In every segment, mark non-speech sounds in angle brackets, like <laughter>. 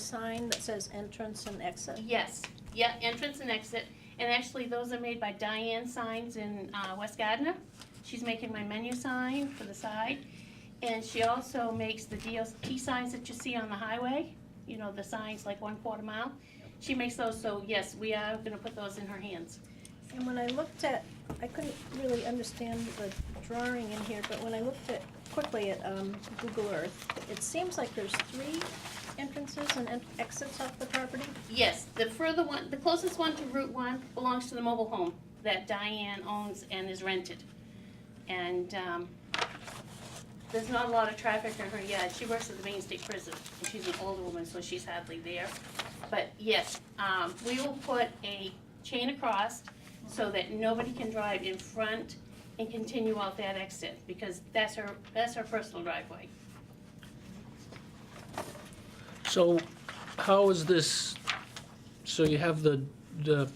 sign that says entrance and exit? Yes, yeah, entrance and exit. And actually, those are made by Diane Signs in uh, West Gardner. She's making my menu sign for the side. And she also makes the DOT signs that you see on the highway, you know, the signs like one quarter mile. She makes those, so yes, we are gonna put those in her hands. And when I looked at, I couldn't really understand the drawing in here, but when I looked at, quickly at, um, Google Earth, it seems like there's three entrances and en- exits off the property. Yes, the further one, the closest one to Route One belongs to the mobile home that Diane owns and is rented. And, um, there's not a lot of traffic in her yard. She works at the Maine State Prison, and she's an older woman, so she's hardly there. But yes, um, we will put a chain across so that nobody can drive in front and continue out that exit, because that's her, that's her personal driveway. So how is this, so you have the, the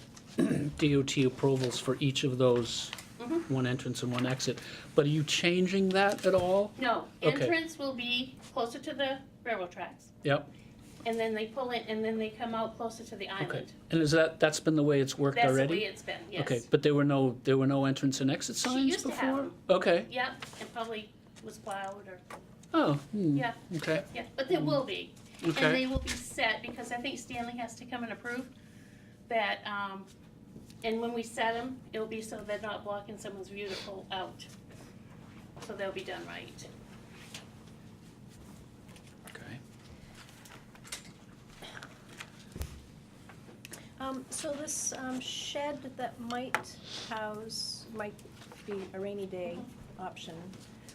DOT approvals for each of those, Mhm. one entrance and one exit, but are you changing that at all? No, Okay. entrance will be closer to the railroad tracks. Yep, And then they pull in, and then they come out closer to the okay. island. And is that, that's been the way it's worked That's the already? way it's been, Okay, yes. but there were no, there were no entrance and exit signs before? used to have them. Okay, Yep, and probably was plowed or, oh, hmm, yeah, okay, yeah, but there will be. And Mm. okay. they will be set, because I think Stanley has to come and approve that, um, and when we set them, it'll be so they're not blocking someone's view to pull out. So they'll be done right. Okay. Um, so this, um, shed that might house, might be a rainy day option,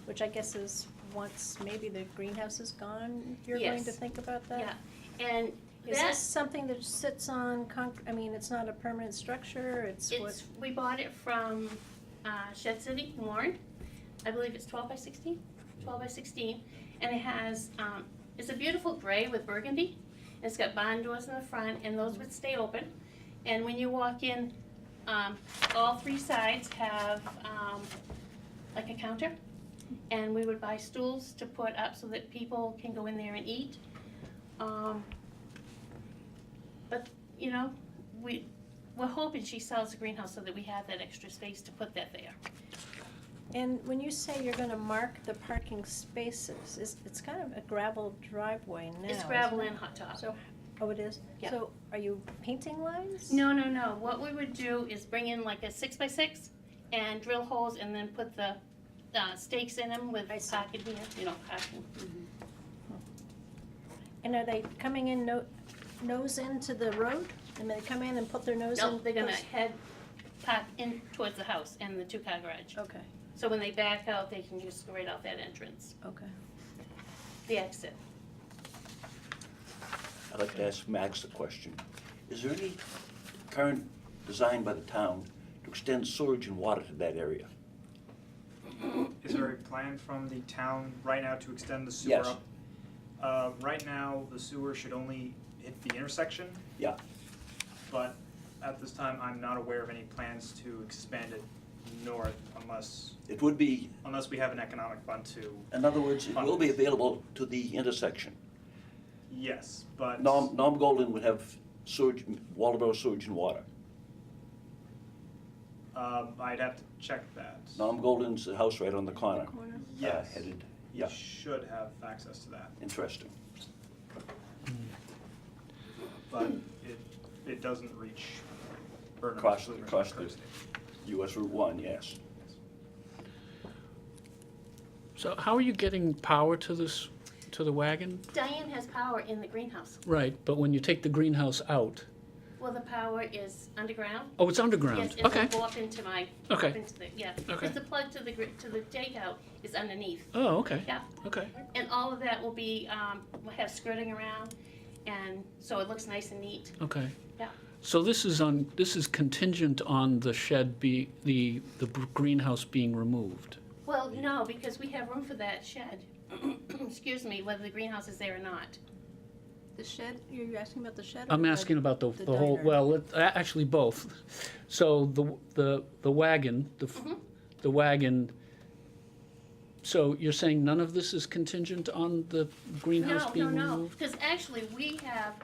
which I guess is once maybe the greenhouse is gone, you're going to Yes. think about that? Yeah. And Is this that's, something that sits on concrete, I mean, it's not a permanent structure, it's what, it's, we bought it from, uh, Shed City, Warren. I believe it's twelve by sixteen. 12 by 16, and it has, um, it's a beautiful gray with burgundy. And It's got barn doors in the front, and those would stay open. And when you walk in, um, all three sides have um, like a counter, and we would buy stools to put up so that people can go in there and eat. Um, but you know, we we're hoping she sells the greenhouse so that we have that extra space to put that there. and when you say you're gonna mark the parking spaces, is, it's kind of a gravel driveway now. it's isn't gravel it? and hot top. So, oh, it is? Yeah. So are you painting lines? No, no, no. What we would do is bring in like a six by six and drill holes and then put the uh, stakes in them with I see. pocket here, you know, pocket. And are they coming in no, nose into the road? And they come in and put their nose in? No, they're gonna those- head pop in towards the house and the two car garage. Okay, So when they back out, they can just go right off that entrance, okay. the exit. I'd like to ask Max the question. Is there any current design by the town to extend sewage and water to that area? Is there a plan from the town right now to extend the sewer Yes. up? Uh, right now, the sewer should only hit the intersection. Yeah. But at this time, I'm not aware of any plans to expand it north unless, It would be, unless we have an economic fund to, in other words, it will be available to the intersection. yes, but. Norm, Norm Golden would have sewage, Waldeboro sewage and water. Um, I'd have to check that. Norm Golden's the house right on the corner. uh, Corner. Yes, Headed, you yeah, should have access to that, interesting. but it, it doesn't reach. Burnham, Across- Sligo, across the- Kirkstone. US Route one, yes. So how are you getting power to this, to the wagon? Diane has power in the greenhouse. Right, but when you take the greenhouse out, Well, the power is underground. oh, it's underground? Yes, it Okay, will go up into my, up okay. into the, yeah. Okay. Because the plug to the, gr- to the takeout is underneath. Oh, okay. Yeah. Okay. And all of that will be, um, will have skirting around, and so it looks nice and neat. Okay. Yeah. So this is on, this is contingent on the shed be, the, the b- greenhouse being removed? Well, no, because we have room for that shed, <clears throat> excuse me, whether the greenhouse is there or not. The shed, you're asking about the shed? or I'm the- asking about the, The the whole, diner. well, let- a- actually both. So the, the, the wagon, the, f- Mhm. the wagon, so you're saying none of this is contingent on the greenhouse No, no, being no, removed? because actually, we have